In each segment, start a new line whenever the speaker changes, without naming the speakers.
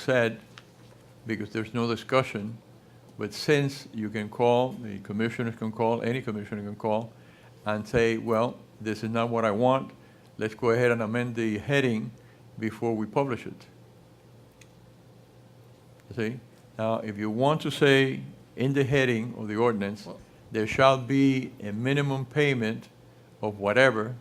said, because there's no discussion, but since you can call, the commissioners can call, any commissioner can call, and say, well, this is not what I want, let's go ahead and amend the heading before we publish it. You See? Now, if you want to say in the heading of the ordinance, there shall be a minimum payment of whatever,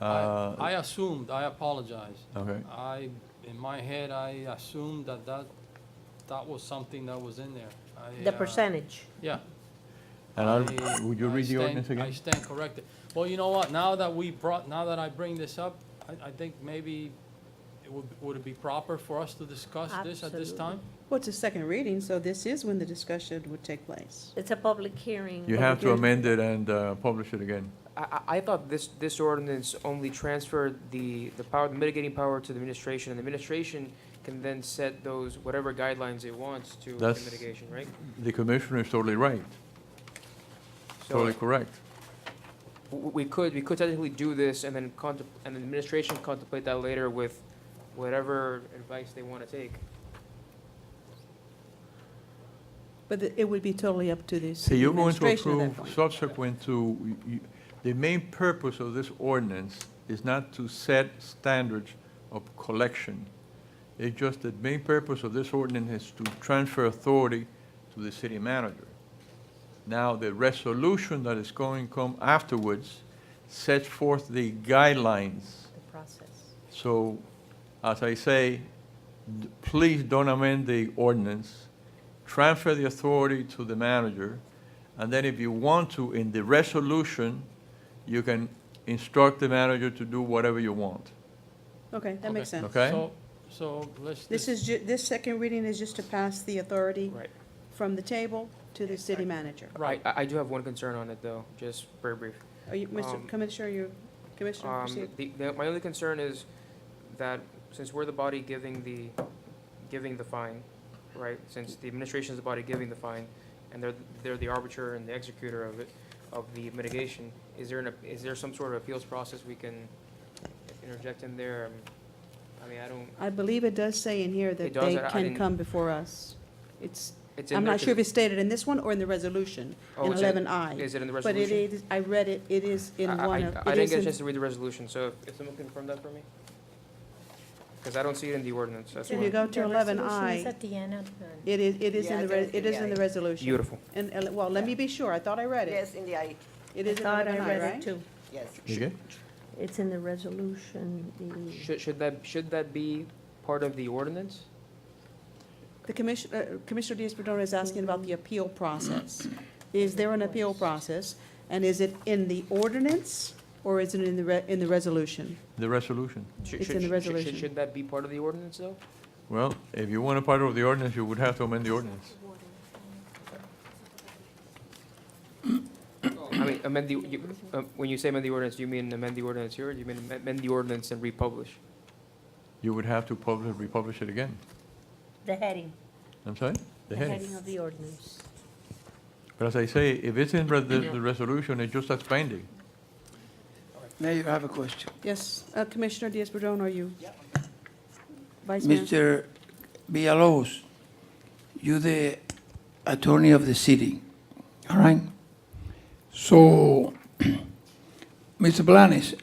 I I
uh,
assumed, I apologize.
okay,
I, in my head, I assumed that that, that was something that was in there. I,
The
uh,
percentage.
Yeah.
and
I-
I'll, would you
I
read the
stand-
ordinance
I
again?
stand corrected. Well, you know what, now that we brought, now that I bring this up, I, I think maybe it would, would it be proper for us to discuss this at this
Absolutely.
time?
Well, it's a second reading, so this is when the discussion would take place.
It's a public
Mm-hmm.
hearing.
You have to amend it and uh, publish it again.
I, I- I thought this, this ordinance only transferred the, the power, the mitigating power to the administration, and the administration can then set those, whatever guidelines it wants to the
That's-
mitigation, right?
The commissioner is totally right,
So
totally correct.
w- we could, we could technically do this and then contempl, and the administration contemplate that later with whatever advice they want to take.
But the- it would be totally up to the
So
city
you're going to
administration at
approve
that point.
subsequent to, you- the main purpose of this ordinance is not to set standards of collection. It's just the main purpose of this ordinance is to transfer authority to the city manager. Now, the resolution that is going to come afterwards sets forth the guidelines
The process.
So, as I say, d- please don't amend the ordinance. Transfer the authority to the manager, and then if you want to, in the resolution, you can instruct the manager to do whatever you want.
Okay, that makes
Okay.
sense.
Okay.
So, so let's.
This is, ju- this second reading is just to pass the authority
Right.
from the table to the city manager.
Right.
I, I do have one concern on it, though, just very brief.
Are you, Mr.
Um,
Commissioner, you, Commissioner,
Um,
proceed.
the, the, my only concern is that since we're the body giving the, giving the fine, right? Since the administration's the body giving the fine, and they're, they're the arbiter and the executor of it, of the mitigation, is there an, ap- is there some sort of appeals process we can interject in there? Um, I mean, I don't,
I believe it does say in here that
It does,
they
I- I
can
didn't-
come before us. It's,
it's in
I'm
there
not sure if
'cause-
it's stated in this one or in the resolution,
oh,
in
it's in-
eleven I.
Is it in the
But it
resolution?
is, I read it, it is in
I- I-
one of,
I- I
it
didn't
is
get a chance
in,
to read the resolution, so if- if someone can confirm that for me? Because I don't see it in the ordinance, that's
if you
why.
go to
The
eleven
resolution is
I,
at the end of the-
it is, it is
Yeah,
in the,
I
re-
don't
it
see
is in
the
the resolution.
Beautiful.
And, ele- well, let me be sure, I thought I read it.
Yes, in the eye,
It is in
I thought
eleven
I
I,
read it
right?
too.
yes.
Again?
It's in the resolution, the,
Should, should that, should that be part of the ordinance?
The commission, uh, Commissioner Diaz-Padrón is asking about the appeal process. Is there an appeal process? And is it in the ordinance or is it in the, re- in the resolution?
The resolution.
Should-
It's
should-
in the
should- should-
resolution.
Should that be part of the ordinance, though?
Well, if you want a part of the ordinance, you would have to amend the ordinance.
I mean, amend the, you- uh, when you say amend the ordinance, do you mean amend the ordinance here, or do you mean am- amend the ordinance and republish?
You would have to publish, republish it again.
the heading,
I'm sorry? The
the
heading.
heading of the ordinance.
But as I say, if it's in re- the, the resolution, it's just as binding.
Mayor, I have a question.
Yes, uh, Commissioner Diaz-Padrón, are you? Vice Mayor?
Mr. Villalobos, you the attorney of the city, all right? So, Mr. Blanes,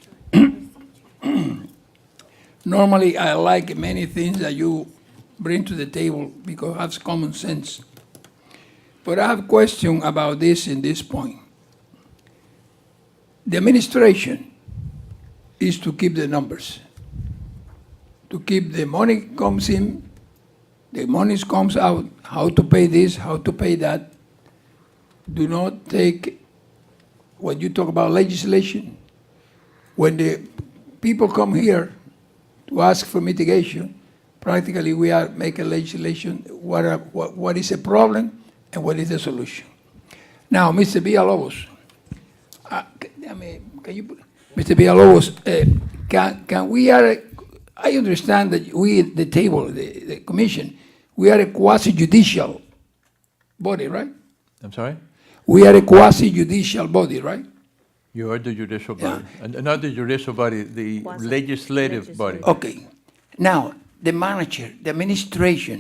normally I like many things that you bring to the table because that's common sense. But I have a question about this in this point. The administration is to keep the numbers to keep the money comes in, the money comes out, how to pay this, how to pay that. Do not take, when you talk about legislation, when the people come here to ask for mitigation, practically we are making legislation, what, are, what, what is a problem and what is the solution. Now, Mr. Villalobos, uh, c- I mean, can you, put- Mr. Villalobos, uh, can, can we are, I understand that we, at the table, the, the commission, we are a quasi judicial body, right?
I'm sorry?
We are a quasi judicial body, right?
You are the judicial
Yeah.
body, and and not the judicial body, the
Quasi-
legislative body.
legislative.
Okay. Now, the manager, the administration,